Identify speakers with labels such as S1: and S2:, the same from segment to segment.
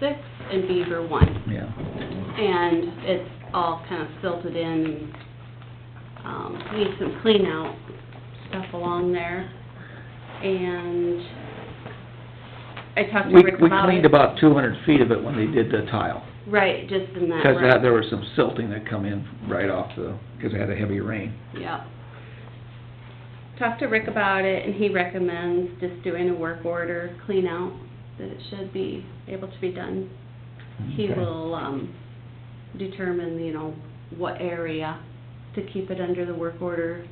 S1: six and Beaver one.
S2: yeah.
S1: And it's all kind of silted in, um, need some clean out stuff along there. And I talked to
S2: We,
S1: Rick
S2: we
S1: about
S2: cleaned
S1: it.
S2: about two hundred feet of it when they did the tile,
S1: Right, just in that
S2: because
S1: row.
S2: there was some silting that come in right off the, because they had a heavy rain.
S1: Yep. Talked to Rick about it, and he recommends just doing a work order, clean out, that it should be able to be done. He
S2: Okay.
S1: will, um, determine, you know, what area to keep it under the work order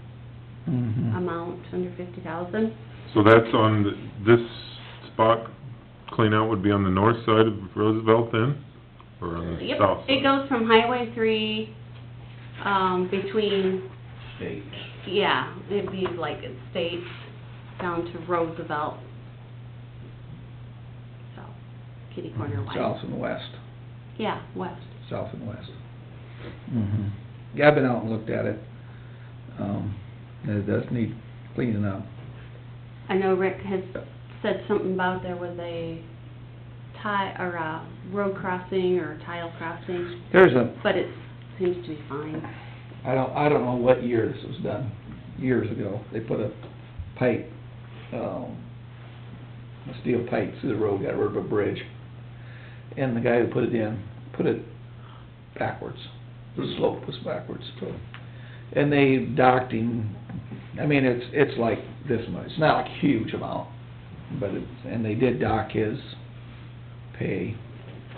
S2: Mhm.
S1: amount, under fifty thousand.
S3: So that's on, the- this spot clean out would be on the north side of Roosevelt then? Or on the
S1: Yep,
S3: south side?
S1: it goes from Highway three, um, between,
S4: States.
S1: yeah, it'd be like it states down to Roosevelt. So, kitty corner wise.
S2: Hmm. South and west,
S1: Yeah, west.
S2: south and west. Mhm. Yeah, I've been out and looked at it. Um, it does need cleaning up.
S1: I know Rick had said something about there was a tie, or a road crossing or tile crossing,
S2: There's a,
S1: but it seems to be fine.
S2: I don't, I don't know what year this was done, years ago, they put a pipe, um, a steel pipe through the road, got rid of a bridge. And the guy who put it in, put it backwards, the slope was backwards. And they docked him, I mean, it's, it's like this much, it's not a huge amount, but it, and they did dock his pay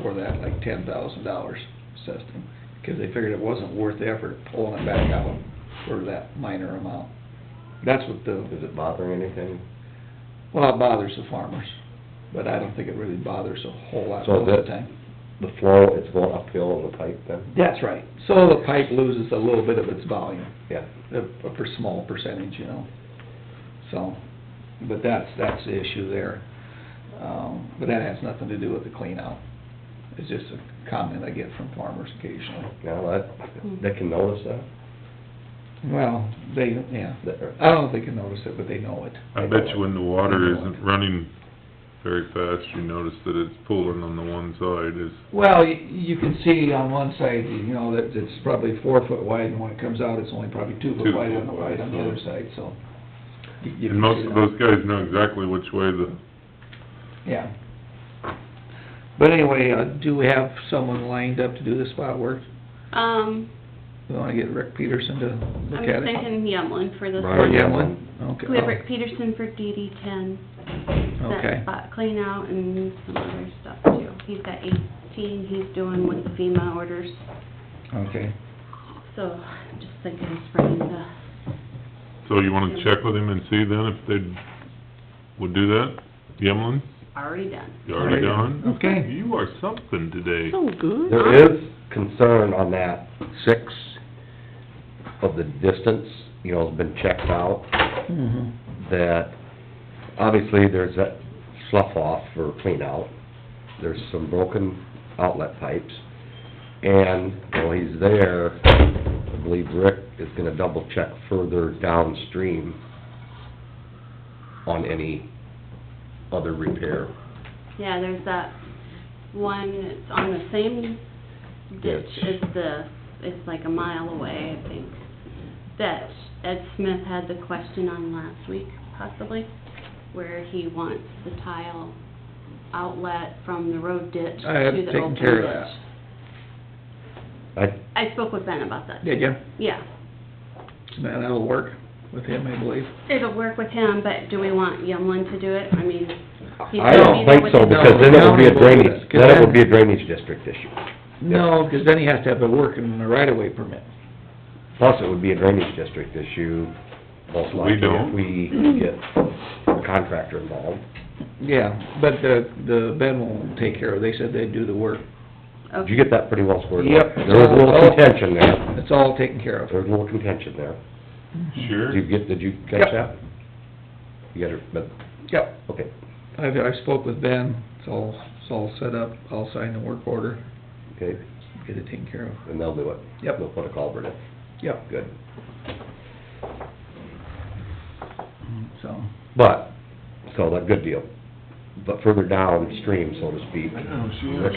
S2: for that, like ten thousand dollars, assessed him because they figured it wasn't worth the effort of pulling it back out for that minor amount. That's what the,
S4: Is it bothering anything?
S2: well, it bothers the farmers, but I don't think it really bothers a whole lot
S4: So
S2: most of
S4: that-
S2: the time.
S4: The flow, it's going uphill on the pipe then?
S2: That's right. So the pipe loses a little bit of its volume,
S4: Yeah.
S2: a, a per small percentage, you know? So, but that's, that's the issue there. Um, but that has nothing to do with the clean out. It's just a comment I get from farmers occasionally.
S4: Now, that, they can notice that?
S2: Well, they, yeah,
S4: That-
S2: I don't know if they can notice it, but they know it.
S3: I bet you when the water isn't running very fast, you notice that it's pooling on the one side is,
S2: Well, y- you can see on one side, you know, that it's probably four foot wide, and when it comes out, it's only probably two foot
S3: Two
S2: wide on
S3: foot
S2: the
S3: wide,
S2: right, on the other
S3: so-
S2: side, so. you- you
S3: and
S2: can
S3: most
S2: see that.
S3: of those guys know exactly which way the,
S2: Yeah. But anyway, uh, do we have someone lined up to do the spot work?
S1: Um,
S2: We wanna get Rick Peterson to
S1: I
S2: look
S1: was
S2: at it?
S1: thinking Yemlin for this
S2: Or
S4: Right,
S1: one.
S4: yeah. Oh.
S2: Yemlin? Okay.
S1: We have Rick Peterson for DD ten. That
S2: Okay.
S1: spot clean out and some other stuff too. He's got eighteen, he's doing with the FEMA orders,
S3: Oh,
S2: Okay.
S1: so I'm just thinking of spreading the,
S3: so you wanna check with him and see then if they would do that? Yemlin,
S1: already done.
S3: you already done?
S2: Okay.
S3: You are something today.
S1: So good.
S4: There is concern on that six of the distance, you know, has been checked out,
S2: Mhm.
S4: that obviously there's that slough off for clean out. There's some broken outlet pipes. And while he's there, I believe Rick is gonna double check further downstream on any other repair.
S1: Yeah, there's that one, that's on the same ditch
S4: Ditch.
S1: as the, it's like a mile away, I think, that Ed Smith had the question on last week, possibly, where he wants the tile outlet from the road ditch to
S2: I have
S1: the
S2: taken
S1: open
S2: care of
S1: ditch.
S2: that.
S4: I,
S1: I spoke with Ben about that.
S2: Did ya?
S1: Yeah,
S2: That- That'll work with him, I believe.
S1: it'll work with him, but do we want Yemlin to do it? I mean, he's
S4: I
S1: gonna be
S4: don't
S1: there
S4: think
S1: with
S4: so,
S1: his-
S4: because then it would be
S2: No, we won't
S4: a
S2: do
S4: drainage,
S2: that, 'cause
S4: then it
S2: then-
S4: would be a drainage district issue.
S2: No, 'cause then he has to have a working right-of-way permit.
S4: Plus, it would be a drainage district issue, most
S3: We
S4: likely,
S3: don't.
S4: if we get a contractor involved.
S2: Yeah, but the, the Ben will take care of, it. they said they'd do the work.
S4: Did
S1: Okay.
S4: you get that pretty well squared away?
S2: Yep. Oh,
S4: There was a little contention there,
S2: It's all taken care of.
S4: there was a little contention there.
S3: Sure.
S4: Did you get, did you catch that? You got it, but,
S2: Yep,
S4: okay,
S2: I've, I spoke with Ben, it's all, it's all set up, I'll sign the work order,
S4: okay,
S2: get it taken care of.
S4: and they'll do it.
S2: Yep.
S4: They'll put a culvert in,
S2: Yep,
S4: good.
S2: so,
S4: But, so that, good deal. But further downstream, so to speak,
S3: I know, she
S4: Rick